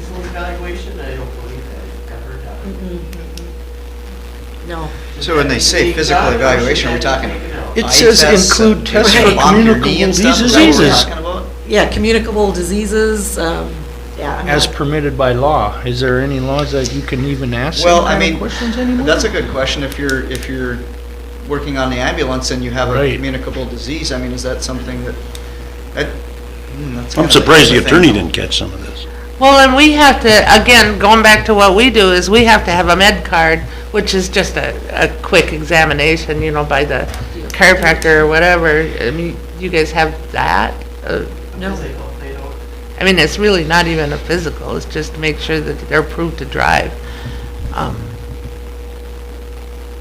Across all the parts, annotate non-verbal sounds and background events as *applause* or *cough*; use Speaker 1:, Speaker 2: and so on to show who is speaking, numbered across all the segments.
Speaker 1: evaluation, I don't believe that it's ever done.
Speaker 2: Mm-mm, mm-mm. No.
Speaker 3: So when they say physical evaluation, are we talking
Speaker 4: It
Speaker 3: eye
Speaker 4: says
Speaker 3: tests
Speaker 4: include
Speaker 3: and
Speaker 4: tests
Speaker 3: you're gonna
Speaker 2: for
Speaker 3: bump your knee
Speaker 4: communicable
Speaker 3: and stuff? Is that what we're
Speaker 2: diseases.
Speaker 3: talking about?
Speaker 2: Yeah, communicable diseases, um, yeah. I'm
Speaker 4: As
Speaker 2: not-
Speaker 4: permitted by law, is there any laws that you can even ask
Speaker 3: Well,
Speaker 4: them
Speaker 3: I
Speaker 4: kind
Speaker 3: mean,
Speaker 4: of questions anymore?
Speaker 3: that's a good question. If you're, if you're working on the ambulance and you have a
Speaker 4: Right.
Speaker 3: communicable disease, I mean, is that something that, that, hmm, that's.
Speaker 5: I'm
Speaker 3: kind of a
Speaker 5: surprised the
Speaker 3: thing.
Speaker 5: attorney didn't catch some of this.
Speaker 6: Well, and we have to, again, going back to what we do, is we have to have a med card, which is just a, a quick examination, you know, by the chiropractor or whatever. I mean, you guys have that? Uh,
Speaker 1: No, they don't, they don't.
Speaker 6: I mean, it's really not even a physical, it's just to make sure that they're approved to drive. Um,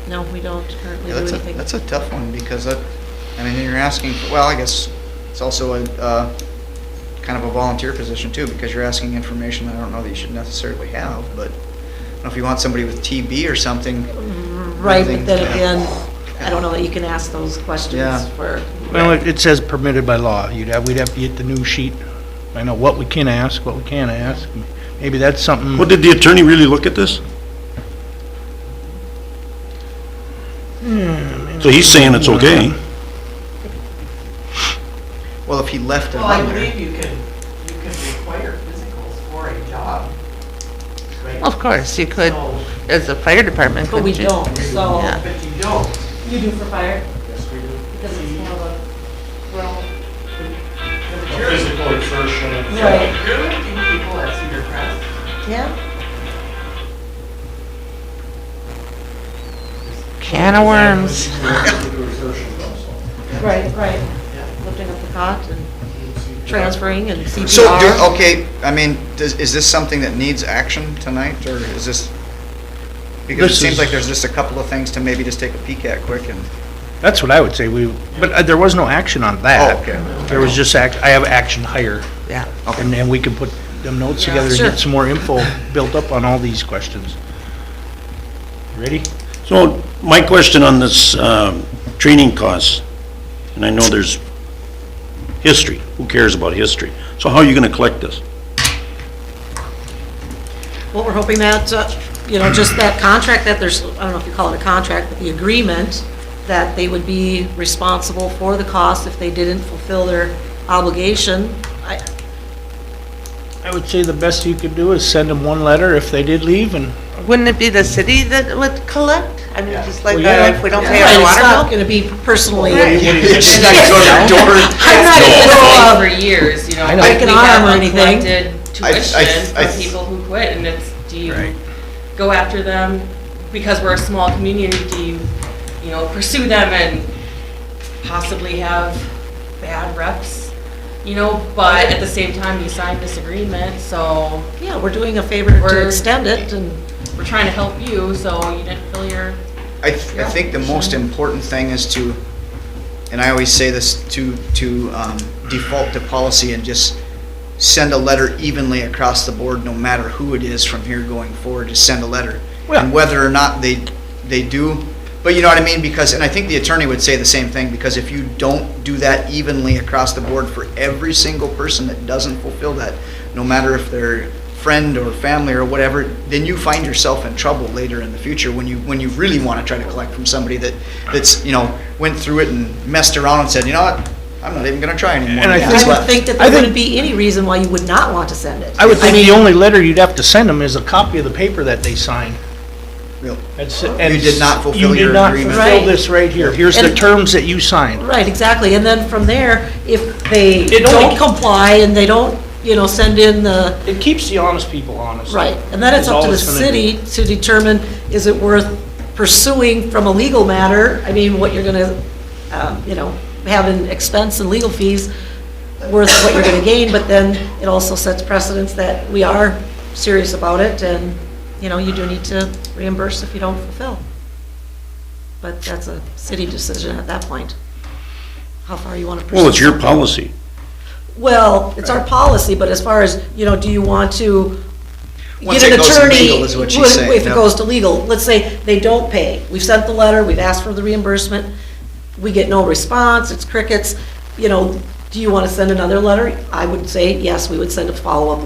Speaker 2: No, we don't currently
Speaker 3: Yeah,
Speaker 2: do
Speaker 3: that's a,
Speaker 2: anything.
Speaker 3: that's a tough one because that, I mean, then you're asking, for- well, I guess it's also a, uh, kind of a volunteer position too, because you're asking information that I don't know that you should necessarily have, but I don't know if you want somebody with TB or something,
Speaker 2: Right, but then
Speaker 3: Everything.
Speaker 2: again, I don't know that you can ask those questions
Speaker 3: Yeah.
Speaker 2: for,
Speaker 4: Well, it- it says permitted by law. You'd have, we'd have to get the new sheet. I know what we can ask, what we can't ask. Maybe that's something.
Speaker 5: Hmm. Well, did the attorney really look at this? So he's saying it's okay.
Speaker 3: well, if he left it
Speaker 1: Well, I
Speaker 3: on there.
Speaker 1: believe you can, you can require physicals for a job, right?
Speaker 6: Of course, you could,
Speaker 1: So-
Speaker 6: as a fire department,
Speaker 2: but we
Speaker 6: couldn't you?
Speaker 2: don't, so.
Speaker 6: Yeah.
Speaker 1: But you don't.
Speaker 2: You do for fire?
Speaker 1: Yes, we do.
Speaker 2: Because it's more of a, well,
Speaker 1: You're
Speaker 7: physical exertion.
Speaker 2: right,
Speaker 1: you're lifting people at Cedar Crest.
Speaker 2: yeah.
Speaker 6: Can of worms.
Speaker 2: Right, right. Lifting up the cot and transferring and CPR.
Speaker 3: So, do, okay, I mean, does, is this something that needs action tonight, or is this? Because it
Speaker 4: This
Speaker 3: seems
Speaker 4: is-
Speaker 3: like there's just a couple of things to maybe just take a peek at quick
Speaker 4: *laughs*
Speaker 3: and,
Speaker 4: That's what I would say. We, but uh, there was no action on
Speaker 3: oh,
Speaker 4: that.
Speaker 3: okay.
Speaker 4: There was just act, I have action hire.
Speaker 6: Yeah.
Speaker 4: And then we can put them notes
Speaker 2: Yeah,
Speaker 4: together and
Speaker 2: sure.
Speaker 4: get some more info built up on all these questions. Ready?
Speaker 5: So my question on this, um, training costs, and I know there's history, who cares about history? So how are you gonna collect this?
Speaker 2: Well, we're hoping that, uh, you know, just that contract that there's, I don't know if you call it a contract, but the agreement that they would be responsible for the cost if they didn't fulfill their obligation. I-
Speaker 4: I would say the best you could do is send them one letter if they did leave and
Speaker 6: Wouldn't it be the city that would collect? I mean,
Speaker 1: Yeah.
Speaker 6: just like,
Speaker 4: Well,
Speaker 6: uh,
Speaker 4: yeah.
Speaker 6: if we don't pay
Speaker 2: Right,
Speaker 6: our
Speaker 2: It's not
Speaker 6: water bill?
Speaker 2: going to be personally.
Speaker 3: She's
Speaker 5: *laughs*
Speaker 3: not gonna go to the door.
Speaker 2: I'm not in the middle of-
Speaker 8: for years, you know.
Speaker 4: I know.
Speaker 2: Like an
Speaker 8: we
Speaker 2: arm or
Speaker 8: have
Speaker 2: anything.
Speaker 8: uncollected
Speaker 3: I- I-
Speaker 8: Tuition
Speaker 3: I-
Speaker 8: from people who quit, and it's, do
Speaker 3: Right.
Speaker 8: you go after them? Because we're a small community, do you, you know, pursue them and possibly have bad reps? You know, but at the same time, you signed this agreement, so
Speaker 2: Yeah, we're doing a favor to
Speaker 8: We're-
Speaker 2: extend it and,
Speaker 8: we're trying to help you, so you didn't fill your,
Speaker 3: I, th- I think the most important thing is to, and I always say this, to, to um, default to policy and just send a letter evenly across the board, no matter who it is from here going forward, just send a letter.
Speaker 4: Well-
Speaker 3: And whether or not they, they do, but you know what I mean, because, and I think the attorney would say the same thing, because if you don't do that evenly across the board for every single person that doesn't fulfill that, no matter if they're friend or family or whatever, then you find yourself in trouble later in the future when you, when you really want to try to collect from somebody that, that's, you know, went through it and messed around and said, you know what, I'm not even gonna try anymore.
Speaker 4: And I
Speaker 3: Yeah.
Speaker 4: think-
Speaker 2: I would think that there
Speaker 4: I think-
Speaker 2: wouldn't be any reason why you would not want to send it.
Speaker 4: I would think
Speaker 2: mean,
Speaker 4: the only letter you'd have to send them is a copy of the paper that they signed.
Speaker 3: Real-
Speaker 4: That's it. And
Speaker 3: You did not fulfill your
Speaker 4: You
Speaker 3: agreement.
Speaker 4: did not fulfill
Speaker 2: Right.
Speaker 4: this right here. Here's the
Speaker 2: And-
Speaker 4: terms that you signed.
Speaker 2: Right, exactly. And then from there, if they
Speaker 4: It only-
Speaker 2: don't comply and they don't, you know, send in the,
Speaker 4: It keeps the honest people honest.
Speaker 2: right. And then it's
Speaker 4: Is
Speaker 2: up to
Speaker 4: all
Speaker 2: the
Speaker 4: it's gonna do.
Speaker 2: city to determine, is it worth pursuing from a legal matter? I mean, what you're gonna, um, you know, have in expense and legal fees worth what you're gonna gain, but then it also sets precedence that we are serious about it and, you know, you do need to reimburse if you don't fulfill. But that's a city decision at that point, how far you wanna pursue.
Speaker 5: Well, it's your
Speaker 2: something.
Speaker 5: policy.
Speaker 2: Well, it's our policy, but as far as, you know, do you want to
Speaker 3: Once
Speaker 2: get
Speaker 3: it
Speaker 2: an
Speaker 3: goes to
Speaker 2: attorney?
Speaker 3: legal is what she's
Speaker 2: would-
Speaker 3: saying,
Speaker 2: If
Speaker 3: yeah.
Speaker 2: it goes to legal, let's say they don't pay, we've sent the letter, we've asked for the reimbursement, we get no response, it's crickets, you know, do you want to send another letter? I would say, yes, we would send a follow-up